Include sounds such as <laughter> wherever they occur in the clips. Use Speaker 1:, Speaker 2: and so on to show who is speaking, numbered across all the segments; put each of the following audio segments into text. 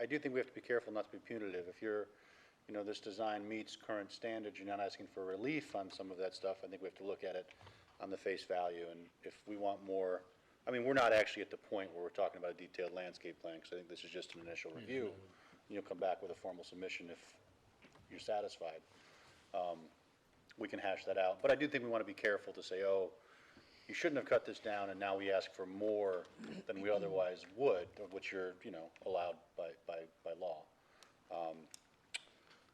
Speaker 1: I do think we have to be careful not to be punitive. If you're, you know, this design meets current standards, you're not asking for relief on some of that stuff, I think we have to look at it on the face value, and if we want more, I mean, we're not actually at the point where we're talking about a detailed landscape plan, because I think this is just an initial review. You'll come back with a formal submission if you're satisfied. Um, We can hash that out, but I do think we want to be careful to say, oh, you shouldn't have cut this down, and now we ask for more than we otherwise would, of which you're, you know, allowed by, by, by law. Um,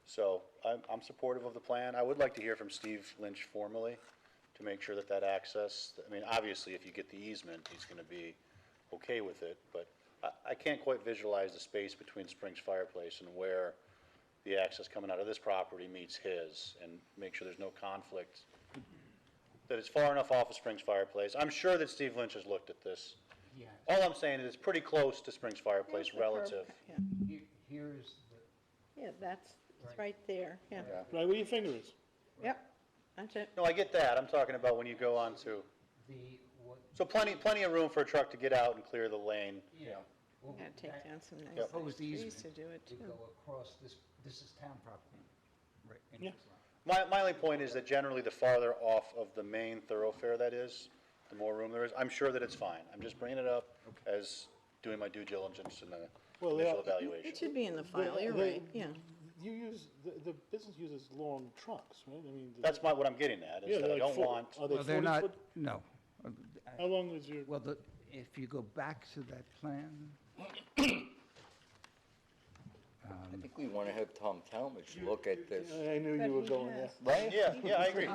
Speaker 1: So I'm, I'm supportive of the plan. I would like to hear from Steve Lynch formally to make sure that that access, I mean, obviously, if you get the easement, he's gonna be okay with it, but I, I can't quite visualize the space between Springs Fireplace and where the access coming out of this property meets his, and make sure there's no conflict that it's far enough off of Springs Fireplace. I'm sure that Steve Lynch has looked at this.
Speaker 2: Yeah,
Speaker 1: All I'm saying is it's pretty close to Springs Fireplace
Speaker 3: Here's the curb
Speaker 1: relative.
Speaker 3: cut, yeah.
Speaker 2: he- here's the,
Speaker 3: Yeah, that's, it's right there, yeah.
Speaker 1: Yeah.
Speaker 4: Right where your finger is.
Speaker 3: Yep, that's it.
Speaker 1: No, I get that. I'm talking about when you go on to,
Speaker 2: the, what,
Speaker 1: so plenty, plenty of room for a truck to get out and clear the lane.
Speaker 2: yeah. well,
Speaker 3: Gotta take
Speaker 2: that
Speaker 3: down some nice
Speaker 1: Yep.
Speaker 3: things.
Speaker 2: Proposed
Speaker 3: We used to
Speaker 2: easement
Speaker 3: do it
Speaker 2: would
Speaker 3: too.
Speaker 2: go across this, this is town property. Right. in
Speaker 4: Yeah.
Speaker 2: his line.
Speaker 1: My, my only point is that generally the farther off of the main thoroughfare that is, the more room there is. I'm sure that it's fine. I'm just bringing it up as doing my due diligence in the
Speaker 4: Well, they
Speaker 1: initial
Speaker 4: are-
Speaker 1: evaluation.
Speaker 3: It should be in the file,
Speaker 4: The-
Speaker 3: you're
Speaker 4: the-
Speaker 3: right, yeah.
Speaker 4: You use, the, the business uses long trunks, right? I mean. the-
Speaker 1: That's my, what I'm getting at, is
Speaker 4: Yeah,
Speaker 1: that
Speaker 4: they're
Speaker 1: I
Speaker 4: like
Speaker 1: don't
Speaker 4: four-
Speaker 1: want,
Speaker 4: Are they
Speaker 5: Well, they're
Speaker 4: forty
Speaker 5: not,
Speaker 4: foot?
Speaker 5: no. Uh,
Speaker 4: How long is your,
Speaker 5: Well, the- if you go back to that plan,
Speaker 6: I think we want to have Tom Talmadge look at this,
Speaker 4: I knew
Speaker 3: But
Speaker 4: you were
Speaker 3: he
Speaker 4: going there.
Speaker 3: has-
Speaker 6: right?
Speaker 1: yeah, yeah, I
Speaker 4: <laughs>
Speaker 1: agree.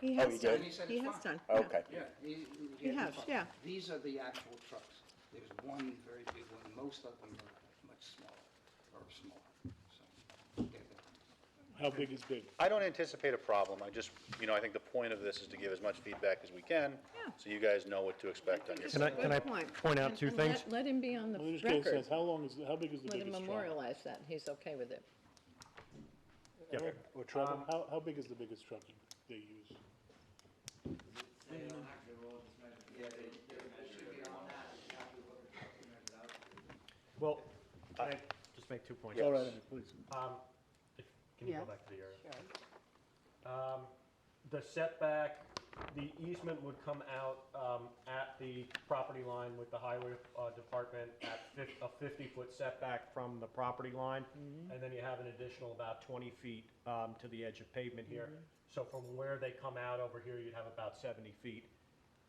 Speaker 3: He
Speaker 6: Oh,
Speaker 3: has done,
Speaker 6: he did?
Speaker 2: And he said
Speaker 3: he
Speaker 2: it's
Speaker 3: has
Speaker 2: fine.
Speaker 3: done. yeah.
Speaker 6: Okay.
Speaker 2: Yeah. he- he had
Speaker 3: You
Speaker 2: the
Speaker 3: have,
Speaker 2: truck.
Speaker 3: yeah.
Speaker 2: These are the actual trucks. There's one very big one, most of them are much smaller, or smaller, so. they're the-
Speaker 4: How big is big?
Speaker 1: I don't anticipate a problem, I just, you know, I think the point of this is to give as much feedback as we can,
Speaker 3: Yeah.
Speaker 1: so you guys know what to expect on your.
Speaker 3: That's a
Speaker 7: Can I,
Speaker 3: good
Speaker 7: can I
Speaker 3: point.
Speaker 7: point out
Speaker 3: And-
Speaker 7: two
Speaker 3: and let-
Speaker 7: things?
Speaker 3: Let him be on the
Speaker 4: Well, this case
Speaker 3: record.
Speaker 4: says, how long is, how big is the
Speaker 3: Let him
Speaker 4: biggest trunk?
Speaker 3: memorialize that, he's okay with it.
Speaker 7: Yeah.
Speaker 4: Or travel, how, how big is the biggest truck they use?
Speaker 7: Well, can I just make two points?
Speaker 4: Go right ahead, please.
Speaker 7: Um, if- Can you
Speaker 3: Yeah.
Speaker 7: go back to the area? Um, The setback, the easement would come out um, at the property line with the highway uh, department at fif- a 50-foot setback from the property line. And then you have an additional about 20 feet um, to the edge of pavement here. So from where they come out over here, you'd have about 70 feet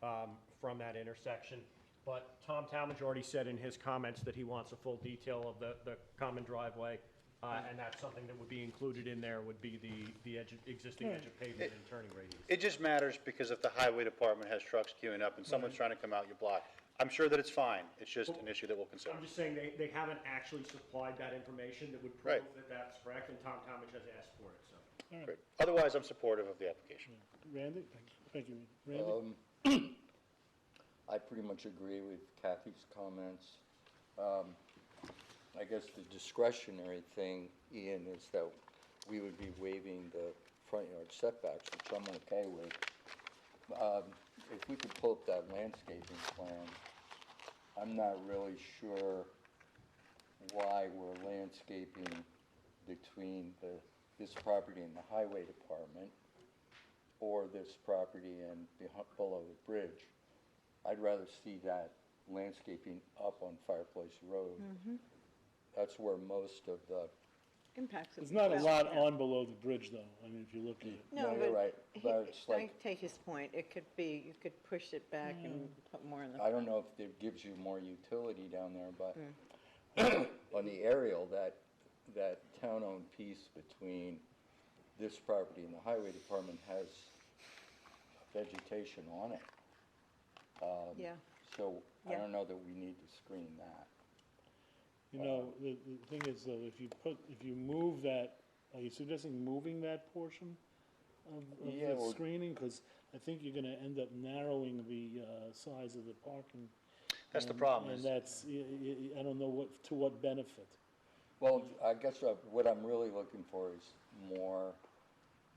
Speaker 7: um, from that intersection. But Tom Talmadge already said in his comments that he wants a full detail of the, the common driveway, uh, and that's something that would be included in there, would be the, the edge, of- existing edge of pavement and turning radius.
Speaker 1: It just matters because if the highway department has trucks queuing up and someone's trying to come out your block, I'm sure that it's fine, it's just an issue that we'll consider.
Speaker 7: I'm just saying, they, they haven't actually supplied that information that would prove
Speaker 1: Right.
Speaker 7: that that's correct, and Tom Talmadge has asked for it, so.
Speaker 1: Great. Otherwise, I'm supportive of the application.
Speaker 4: Randy? Thank you, Randy.
Speaker 6: I pretty much agree with Kathy's comments. Um, I guess the discretionary thing, Ian, is that we would be waiving the front yard setbacks, which I'm okay with. Um, If we could pull up that landscaping plan, I'm not really sure why we're landscaping between the, this property and the highway department or this property and behi- below the bridge. I'd rather see that landscaping up on Fireplace Road.
Speaker 3: Mm-hmm.
Speaker 6: That's where most of the,
Speaker 3: Impacts. it.
Speaker 4: There's not a lot on below the bridge, though. I mean, if you look at it.
Speaker 3: No,
Speaker 6: No, you're
Speaker 3: but
Speaker 6: right,
Speaker 3: he-
Speaker 6: but it's
Speaker 3: I
Speaker 6: like-
Speaker 3: take his point, it could be, you could push it back and put more in the.
Speaker 6: I don't know if it gives you more utility down there, but
Speaker 3: Hmm.
Speaker 6: <clears throat> on the aerial, that, that town-owned piece between this property and the highway department has vegetation on it.
Speaker 3: Yeah,
Speaker 6: So I
Speaker 3: Yeah.
Speaker 6: don't know that we need to screen that.
Speaker 4: You know, the, the thing is though, if you put, if you move that, are you suggesting moving that portion of, of
Speaker 6: Yeah,
Speaker 4: the
Speaker 6: well-
Speaker 4: screening? Because I think you're gonna end up narrowing the, uh, size of the parking.
Speaker 1: That's the
Speaker 4: and-
Speaker 1: problem,
Speaker 4: And
Speaker 1: is,
Speaker 4: that's, y- y- y- I don't know what, to what benefit.
Speaker 6: Well, I guess uh, what I'm really looking for is more,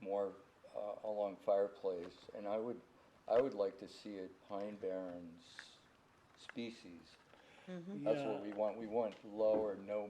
Speaker 6: more uh, along fireplace, and I would, I would like to see it pine barrens species. That's what
Speaker 4: Yeah.
Speaker 6: we want, we want low or no